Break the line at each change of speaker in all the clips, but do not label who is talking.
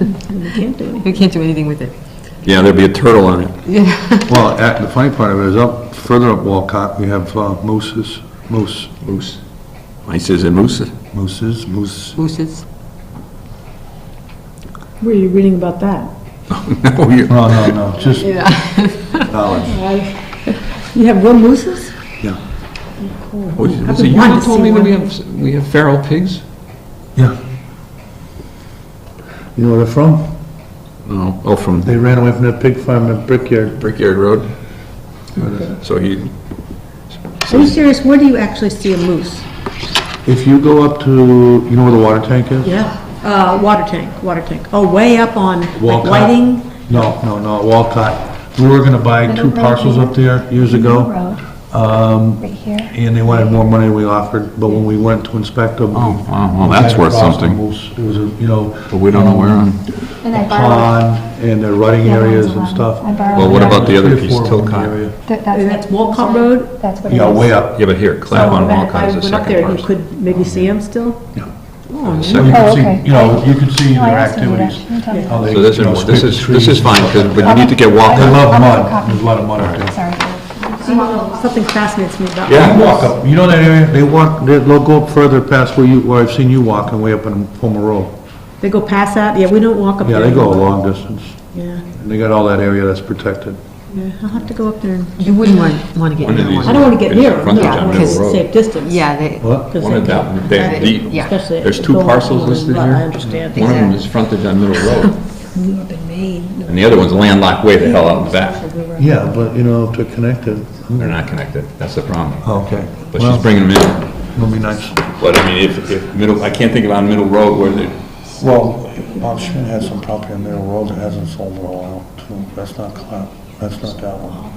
And we can't do
We can't do anything with it.
Yeah, there'd be a turtle on it.
Well, at- the funny part of it is up, further up Walcott, we have uh, mooses, moose,
Moose. Mine says a moose.
mooses, moose.
Mooses.
Were you reading about that?
No, you-
No, no, no, just knowledge.
You have real mooses?
Yeah,
Was it
been wanting
you that
to
told
see
me when
one.
we have, we have feral pigs?
yeah. You know where they're from?
No. Oh, from
They ran away from that pig farm at Brickyard.
Brickyard Road? So he,
Are you serious? Where do you actually see a moose?
If you go up to, you know where the water tank is?
Yeah. Uh, water tank, water tank. Oh, way up on like
Walcott.
lighting?
No, no, no, Walcott. We were gonna buy two parcels up there years ago,
Road,
Um,
right here.
and they wanted more money than we offered, but when we went to inspect them.
Oh, wow, well,
we
that's
ran
worth
across
something.
the moose. It was, a you know. um,
but we don't know where on.
And I borrowed,
pond and their rutting
Yeah, mine's
areas and
eleven.
stuff.
I borrowed.
Well, what about the other
Three or
piece,
four of them in the
Tilcott?
area.
Th-
And that's Walcott Road?
That's what it is.
Yeah, way up.
Yeah, but here, Clapham
So,
Walcott is the
I went up there,
second
and you
parcel.
could maybe see them still?
So you
Second-
can
Oh,
see,
okay.
you know, you can see
No, Oh, I
their
asked him to do
activities.
that. He told me
how they,
So this
you know,
is,
split
this
the
is, this is
trees.
fine, because we need to get
They
Walcott.
love
I'll make a
mud,
copy.
there's a lot of mud up
that.
there.
Sorry.
See, Something fascinates me about
Yeah.
You walk up, you know that area, they walk, they- they'll go up further past where you, where I've seen you walking, way up on Homer Road.
They go past that? Yeah, we don't walk up
Yeah,
there.
they go a long distance,
Yeah,
and they got all that area that's protected.
yeah, I'll have to go up there and,
You wouldn't want, want to get
One of
near
these-
I
one.
don't want to get
It's
near them,
frontage
yeah,
on
because
Middle Road.
safe distance.
Yeah, they,
What?
'Cause
One
they
of
can-
that, they- the-
Yeah.
especially
there's
if
two
it's going
parcels
along
listed
the-
here?
I understand.
One of them is frontage on Middle Road,
We have been made.
and the other one's landlocked way the hell out in back.
Yeah, but, you know, if they're connected.
They're not connected, that's the problem.
Okay.
But she's bringing them in.
It'll be nice.
But I mean, if, if Middle, I can't think of on Middle Road where they
Well, Bob Schmidt has some property on Middle Road that hasn't sold in a while, too. That's not, Cla- that's not that one.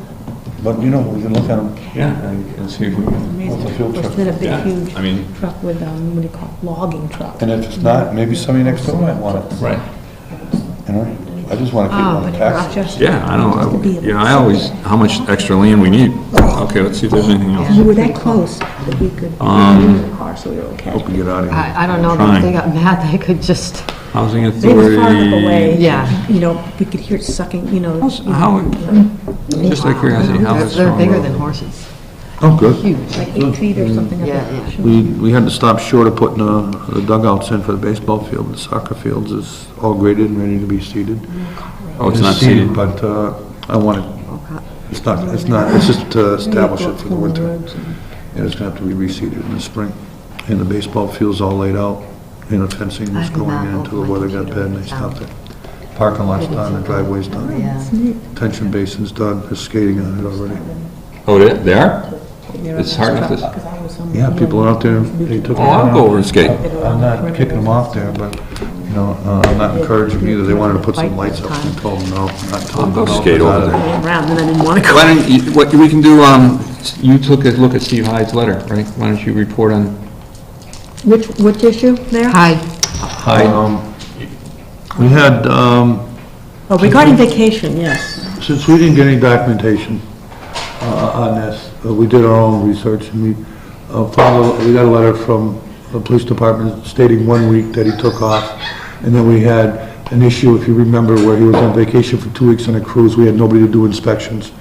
But, you know, we can look at them
yeah, and and see if we can.
with the field
It's
trip.
been a big,
Yeah,
huge
I mean-
truck with, um, what do you call it, logging truck.
And if it's not, maybe somebody next door might want it,
Right.
you know? I just want to keep it
Oh,
on
but
the
in
tax.
Rochester.
Yeah, I don't, I- you know, I always, how much extra land we need.
Oh.
Okay, let's see if there's anything
We
else.
were that close that we could, we were in the car, so we were okay.
Get out of here.
I, I don't know, but if they
Fine.
got mad, they could just,
Housing
They were far enough away.
authority.
Yeah.
You know, we could hear it sucking, you know.
How's- How, just out of curiosity, how
they're
is
they're
Strong
bigger
Road?
than horses,
Oh, good.
huge.
Like eight feet or something.
Yeah, yeah.
We, we had to stop short of putting uh, the dugouts in for the baseball field, the soccer fields is all graded and ready to be seeded.
Oh, it's not seated.
But uh, I want it, it's not, it's not, it's just to establish it for the winter. And it's gonna have to be reseeded in the spring. And the baseball field's all laid out, and the fencing was
I did not
going in until
open
the
my
weather got
computer
bad and
when
they
I found
stopped it. Parking lot's done, the driveway's done,
oh, Yeah.
tension basin's done, there's skating on it already.
Oh, they they are? It's hard with this.
Yeah, people are out there, they took.
Oh, I'll go over and skate.
I'm not kicking them off there, but, you know, uh, I'm not encouraging them either. They wanted to put some lights up, and I told them no, I'm not
I'll
telling
go
them. no,
skate
it's out
over
of
there.
Around, and I didn't want to go.
Why don't you, what we can do, um, you took a look at Steve Hyde's letter, right? Why don't you report on
Which, which issue there?
Hi,
Um, We had, um,
Oh, regarding vacation, yes.
since we didn't get any documentation uh, on this, uh, we did our own research, and we uh, found, a- we got a letter from the police department stating one week that he took off, and then we had an issue, if you remember, where he was on vacation for two weeks on a cruise, we had nobody to do inspections,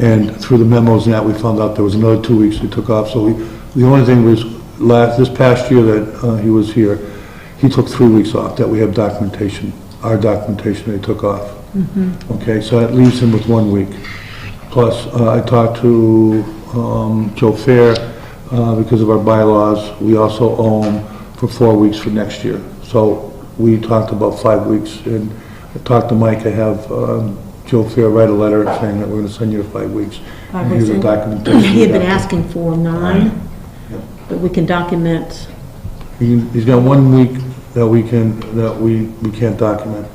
and through the memos and that, we found out there was another two weeks he took off, so we, the only thing was, last, this past year that uh, he was here, he took three weeks off, that we have documentation, our documentation that he took off. Okay, so that leaves him with one week. Plus, uh, I talked to um, Joe Fair, uh, because of our bylaws, we also owe him for four weeks for next year. So we talked about five weeks, and I talked to Mike, I have um, Joe Fair write a letter saying that we're going to send you to five weeks.
Five
And here's the
weeks.
documentation.
He had been asking for nine, but we can document,
He- He's got one week that we can, that we, we can't document,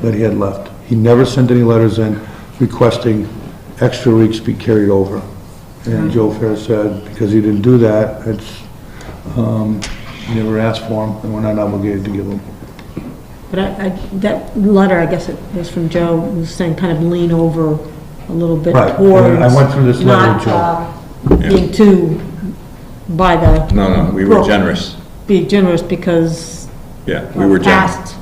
that he had left. He never sent any letters in requesting extra weeks be carried over. And Joe Fair said, because he didn't do that, it's, um, he never asked for them, and we're not obligated to give them.
but I, I, that letter, I guess it was from Joe, was saying kind of lean over a little bit
Right,
towards.
I went through this letter
not,
with Joe.
uh, Being too, by the.
No, no, we were
Well,
generous.
Be generous because.
Yeah, we were generous.
Past